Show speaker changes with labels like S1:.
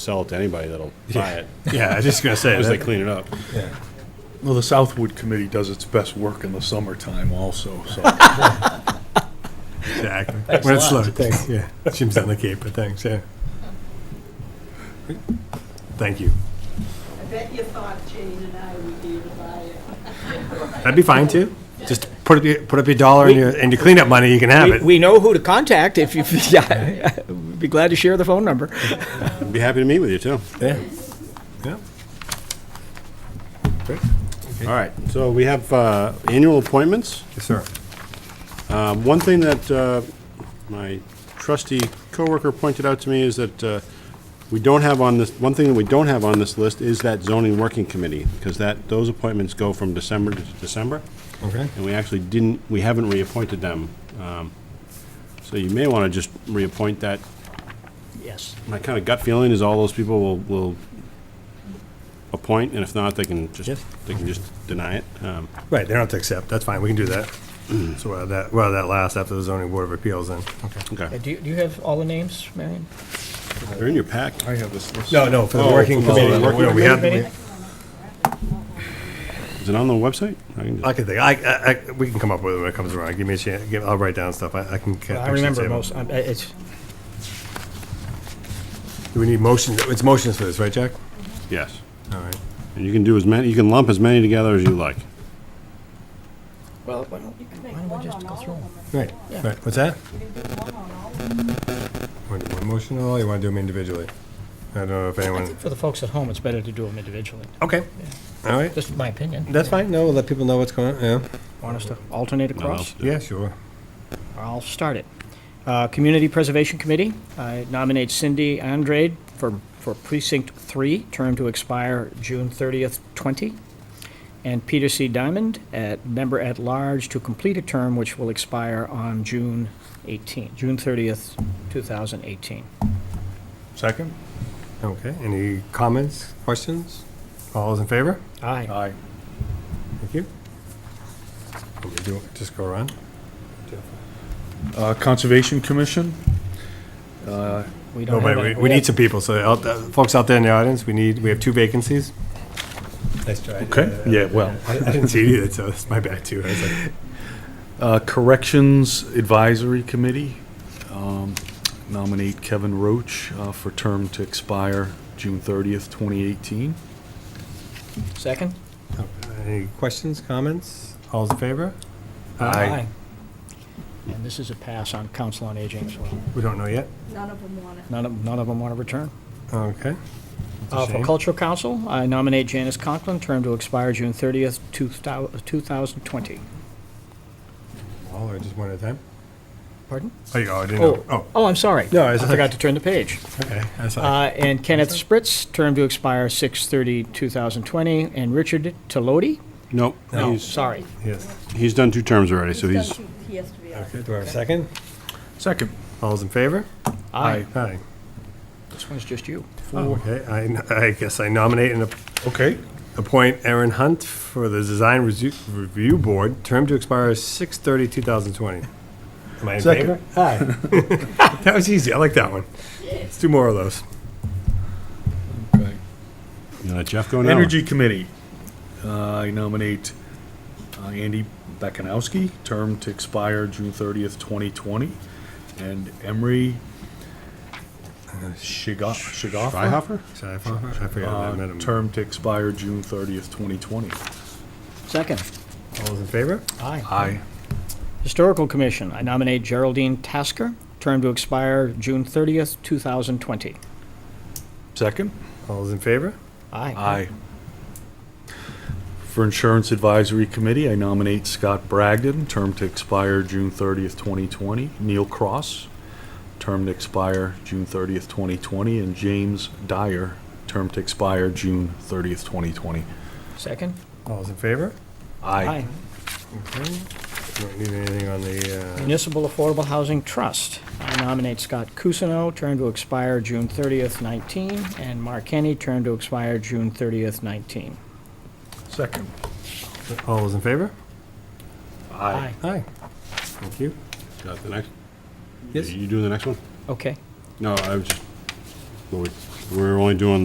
S1: sell it to anybody that'll buy it,
S2: Yeah, I was just gonna say.
S1: as they
S2: that-
S1: clean it up.
S3: Well, the Southwood Committee does its best work in the summertime also, so.
S2: Exactly. When it's
S4: a
S2: slow,
S4: lot.
S2: thanks, yeah. Jim's on the Cape, but thanks, yeah. Thank you.
S5: I bet you thought Jane and I would be able to buy it.
S2: That'd be fine, too. Just put up your, put up your dollar and your, and your cleanup money, you can have
S4: We,
S2: it.
S4: we know who to contact if you, yeah, we'd be glad to share the phone number.
S1: I'd be happy to meet with you, too.
S2: Yeah. Yeah.
S1: All right, so we have uh, annual appointments.
S2: Yes, sir.
S1: Um, One thing that uh, my trusty coworker pointed out to me is that uh, we don't have on this, one thing that we don't have on this list is that zoning working committee, because that, those appointments go from December to December,
S2: Okay.
S1: and we actually didn't, we haven't reappointed them. Um, So you may want to just reappoint that.
S4: Yes.
S1: My kind of gut feeling is all those people will, will appoint, and if not, they can just,
S2: Yes.
S1: they can just deny it. Um,
S2: Right, they don't have to accept, that's fine, we can do that. So while that, while that lasts after the zoning board of appeals then. Okay.
S1: Okay,
S4: Uh, Do you, do you have all the names, Marion?
S1: they're in your pack.
S3: I have this list.
S2: No, no, for the
S1: Oh,
S2: working
S1: for the
S2: committee,
S1: working
S2: we- we have,
S4: committee?
S2: we-
S1: Is it on the website? I can just-
S2: I can think, I, I, I- we can come up with it when it comes around, give me a chance, give, I'll write down stuff, I, I can. ca-
S4: I
S2: actually
S4: remember
S2: save them.
S4: most, I- I- it's,
S2: Do we need motions, it's motions for this, right, Jack?
S1: Yes.
S2: All right.
S1: And you can do as many, you can lump as many together as you like.
S4: well, why don't
S5: You can make
S4: why don't
S5: one
S4: we just
S5: on
S4: go
S5: all of
S4: through
S5: them.
S4: them?
S2: Right,
S4: Yeah.
S2: right, what's that?
S5: You can do one on all of them.
S2: Want to do one motion at all, or you want to do them individually? I don't know if
S4: I
S2: anyone,
S4: think for the folks at home, it's better to do them individually.
S2: okay, all right,
S4: Just my opinion.
S2: that's fine, no, we'll let people know what's going on, yeah.
S4: Want us to alternate across?
S2: Yeah, sure.
S4: I'll start it. Uh, Community Preservation Committee, I nominate Cindy Andrade for, for Precinct 3, term to expire June 30th, 20, and Peter C. Diamond, at member-at-large, to complete a term which will expire on June 18, June 30th, 2018.
S3: Second?
S2: Okay, any comments, questions? All those in favor?
S4: Aye.
S3: Aye.
S2: Thank you. Let me do it, Just go around.
S3: Uh, Conservation Commission? Uh,
S4: We
S2: No,
S4: don't
S2: but
S4: have
S2: we,
S4: any-
S2: we need some people, so out, uh, folks out there in the audience, we need, we have two vacancies. Nice try.
S3: Okay, yeah, well.
S2: I I didn't see it either, so that's my bad too. I was like,
S3: Uh, Corrections Advisory Committee, um, nominate Kevin Roach uh, for term to expire June 30th, 2018.
S4: Second?
S2: uh, Any questions, comments? All's in favor?
S4: And this is a pass on Council on Aging as well.
S2: We don't know yet.
S5: None of them want it.
S4: None of, none of them want to return.
S2: Okay. That's a
S4: Uh, For
S2: shame.
S4: Cultural Council, I nominate Janice Conklin, term to expire June 30th, 2000 2020.
S2: All or just one at a time?
S4: Pardon?
S2: Oh, you, oh, I didn't know.
S4: Oh,
S2: Oh,
S4: oh, I'm sorry.
S2: No, I
S4: I
S2: was-
S4: forgot to turn the page.
S2: okay. I saw.
S4: Uh, And Kenneth Spritz, term to expire 6/30/2020, and Richard Tolodi?
S1: Nope,
S4: No,
S1: he's,
S4: sorry.
S2: Yes.
S1: he's done two terms already, so
S5: He's
S1: he's,
S5: done two- He has to be on.
S2: Okay, do I have a second?
S3: Second.
S2: All's in favor?
S4: Aye.
S2: Aye.
S4: This one's just you.
S2: Oh, Okay, I, n- I guess I nominate and ap-
S3: Okay.
S2: appoint Aaron Hunt for the Design Resu- Review Board, term to expire 6/30/2020. Am I in
S3: Second.
S2: favor? Aye. That was easy, I like that one. Let's do more of those.
S1: you gonna let Jeff go now? or-
S3: Energy Committee, uh, I nominate uh, Andy Bekanowski, term to expire June 30th, 2020, and Emery uh, Shiga- Shigoffa,
S1: Freihoffer?
S2: Sorry, I forgot I forgot I met
S3: uh,
S2: him.
S3: term to expire June 30th, 2020.
S4: Second.
S2: All those in favor?
S4: Aye.
S3: Aye.
S4: Historical Commission, I nominate Geraldine Tasker, term to expire June 30th, 2020.
S3: Second?
S2: All those in favor?
S4: Aye.
S3: For Insurance Advisory Committee, I nominate Scott Bragdon, term to expire June 30th, 2020, Neil Cross, term to expire June 30th, 2020, and James Dyer, term to expire June 30th, 2020.
S4: Second?
S2: All those in favor?
S4: Aye.
S2: Okay. Don't need anything on the, uh,
S4: Municipal Affordable Housing Trust. I nominate Scott Cusino, term to expire June 30th, 19, and Mark Kenny, term to expire June 30th, 19.
S3: Second.
S2: uh, all those in favor?
S4: Aye.
S2: Aye. Thank you.
S1: Got the next?
S2: Yes.
S1: You doing the next one?
S4: Okay.
S1: No, I was just, Lloyd. We're only doing